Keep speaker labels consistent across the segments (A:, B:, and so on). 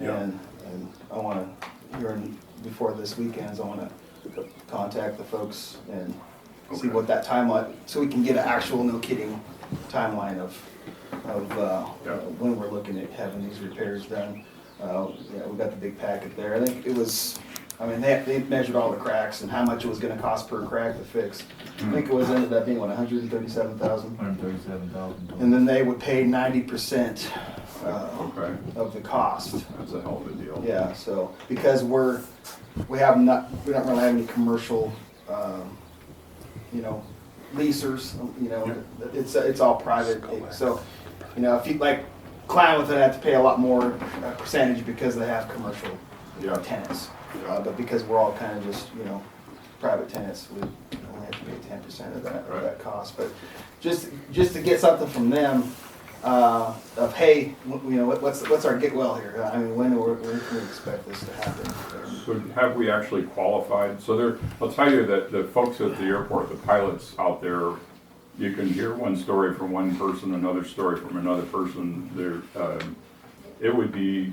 A: Yeah.
B: And, and I wanna, here, before this weekends, I wanna contact the folks and see
A: Okay.
B: what that timeline, so we can get an actual, no kidding, timeline of, of, uh,
A: Yeah.
B: when we're looking at having these repairs done. Uh, yeah, we got the big packet there. I think it was, I mean, they, they measured all the cracks and how much it was gonna cost per crack to fix.
A: Hmm.
B: I think it was, ended up being, what, hundred and thirty-seven thousand?
C: Hundred thirty-seven thousand.
B: And then they would pay ninety percent, uh,
A: Okay,
B: of the cost.
A: that's a hell of a deal.
B: Yeah, so, because we're, we have not, we don't really have any commercial, um, you know, leasers, you know, it's, it's all private. So, you know, if you, like, Klamath would have to pay a lot more uh, percentage because they have commercial
A: Yeah.
B: tenants.
A: Yeah.
B: Uh, But because we're all kind of just, you know, private tenants, we only have to pay ten percent of that, of
A: Right.
B: that cost. But just, just to get something from them, uh, of, hey, wh- you know, what- what's, what's our get well here? I mean, when, are we- when can we expect this to happen?
A: So have we actually qualified? So there, I'll tell you that the folks at the airport, the pilots out there, you can hear one story from one person, another story from another person. There, um, it would be,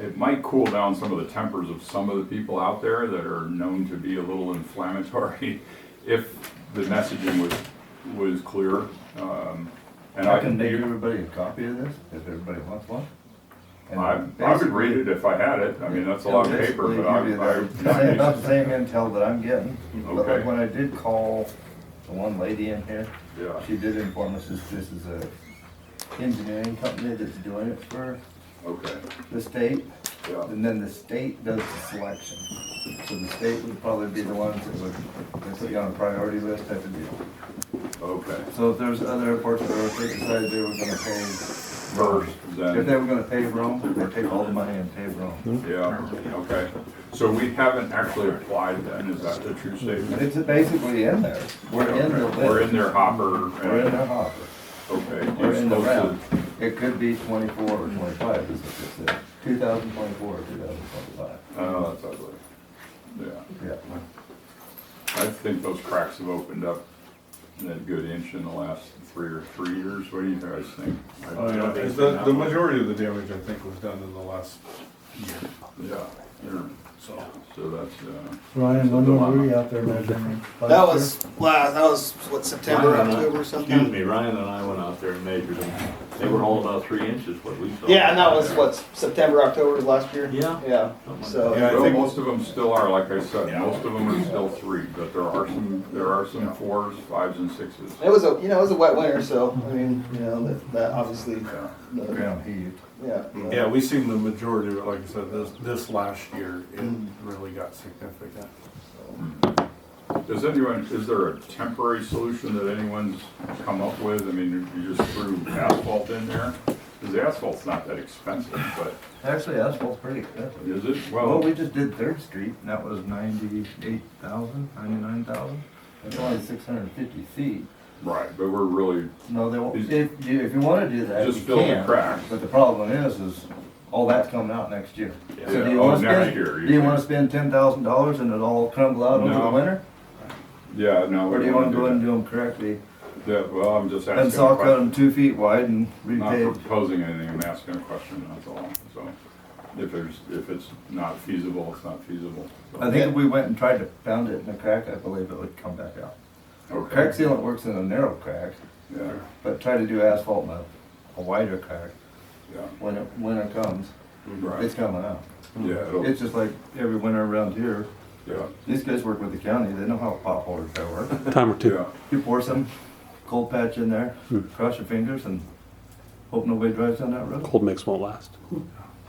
A: it might cool down some of the tempers of some of the people out there that are known to be a little inflammatory if the messaging was, was clear. Um, And
C: I can make everybody a copy of this, if everybody wants one. And
A: I, I would read it if I had it, I mean, that's a lot of paper,
C: basically
A: but
C: give you the-
A: I,
C: same-
A: I,
C: About the same intel that I'm getting, but
A: Okay.
C: like when I did call the one lady in here,
A: yeah.
C: she did inform us that this is a engineering company that's doing it for
A: Okay,
C: the state,
A: yeah,
C: and then the state does the selection. So the state would probably be the ones that would, that's on a priority list type of deal.
A: okay.
C: So if there's other airports that were, if they decided they were gonna pay,
A: First,
C: if they
A: then,
C: were gonna pay Rome, they'd take all the money and pay
A: Hmm?
C: Rome.
A: yeah, okay. So we haven't actually applied then, is that the true statement?
C: It's basically in there. We're in the
A: Okay, We're in
C: list.
A: their hopper.
C: We're in the hopper.
A: Okay.
C: We're
A: you're
C: in the
A: supposed to-
C: round. It could be twenty-four or twenty-five, is what they said. Two thousand twenty-four or two thousand twenty-five.
A: Oh, that's ugly. Yeah,
C: Yeah.
A: I think those cracks have opened up a good inch in the last three or three years, what do you guys think? I-
D: Oh, yeah,
A: I think-
D: the, the majority of the damage, I think, was done in the last year,
A: Yeah, they're-
D: so.
A: so that's, uh,
E: Ryan, when
A: Something like
E: were we out there measuring?
B: That was, last. that was, what, September,
F: Ryan and I-
B: October,
F: Excuse
B: something?
F: me, Ryan and I went out there and measured them. They were all about three inches, what we saw.
B: Yeah, and that was, what, September, October of last year?
F: Yeah.
B: Yeah,
F: Something like
B: so.
D: Yeah, I
A: Well,
D: think-
A: most of them still are, like I said, most of them are still three, but there are some, there are some fours, fives and sixes.
B: It was a, you know, it was a wet winter, so, I mean, you know, that, that obviously,
A: Yeah.
B: the-
C: Ground heaved.
B: yeah.
D: Yeah, we seen the majority of it, like I said, this, this last year, it
A: Mm.
D: really got significant.
A: Does anyone, is there a temporary solution that anyone's come up with? I mean, you just threw asphalt in there? Because the asphalt's not that expensive, but
C: Actually, asphalt's pretty expensive.
A: is it?
C: Well,
A: Well,
C: we just did Third Street, and that was ninety-eight thousand, ninety-nine thousand. That's only six hundred and fifty feet.
A: right, but we're really,
C: No, they won't,
A: Is-
C: if, you- if you wanna do that,
A: Just
C: you
A: fill the
C: can,
A: cracks.
C: But the problem is, is all that's coming out next year. So
A: Yeah,
C: do you
A: oh,
C: wanna
A: next
C: spend,
A: year,
C: do
A: you
C: you
A: think.
C: wanna spend ten thousand dollars and it all crumble out over
A: No.
C: the winter?
A: yeah, no. we
C: Or do you
A: don't
C: wanna go and
A: that.
C: do them correctly?
A: Yeah, well, I'm just
C: And
A: asking. a
C: saw cut
A: question.
C: them two feet wide and
A: Not
C: repave.
A: proposing anything, I'm asking a question, that's all. So if there's, if it's not feasible, it's not feasible. So,
C: I think if we went and tried to pound it in a crack, I believe it would come back out.
A: okay,
C: Crack sealant works in a narrow crack,
A: Yeah,
C: but try to do asphalt in a, a wider crack.
A: yeah,
C: When it, winter comes, it's
A: right,
C: coming out.
A: yeah, it'll,
C: It's just like every winter around here,
A: yeah,
C: these guys work with the county, they know how potholes they work.
G: time or two.
A: yeah.
C: You pour some cold patch in there, cross your fingers and hope nobody drives down that road.
G: Cold mix won't last.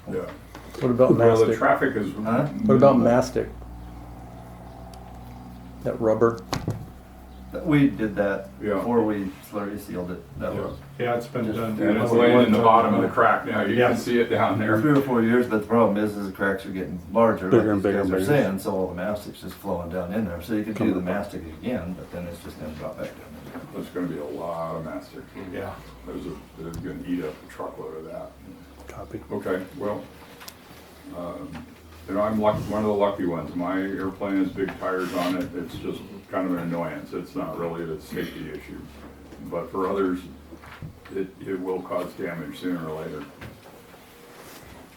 A: Yeah.
E: What about
A: Well, the
E: mastic?
A: traffic is.
C: Huh?
E: What about mastic?
G: That rubber.
C: We did that
A: Yeah.
C: before we slurry sealed it. That was
D: Yeah, it's been done.
A: And it's laying in the bottom of the crack now, you
D: Yeah.
A: can see it down there.
C: three or four years, but the problem is, is the cracks are getting larger.
G: Bigger
C: like these
G: and bigger
C: guys
G: and
C: are
G: bigger.
C: saying, So all the mastic's just flowing down in there. So you could do the mastic again, but then it's just gonna drop back down.
A: There's gonna be a lot of mastic.
D: Yeah.
A: There's a, they're gonna eat up a truckload of that.
G: Copy.
A: Okay, well, um, you know, I'm lucky, one of the lucky ones. My airplane has big tires on it. It's just kind of an annoyance. It's not really a safety issue. But for others, it, it will cause damage sooner or later.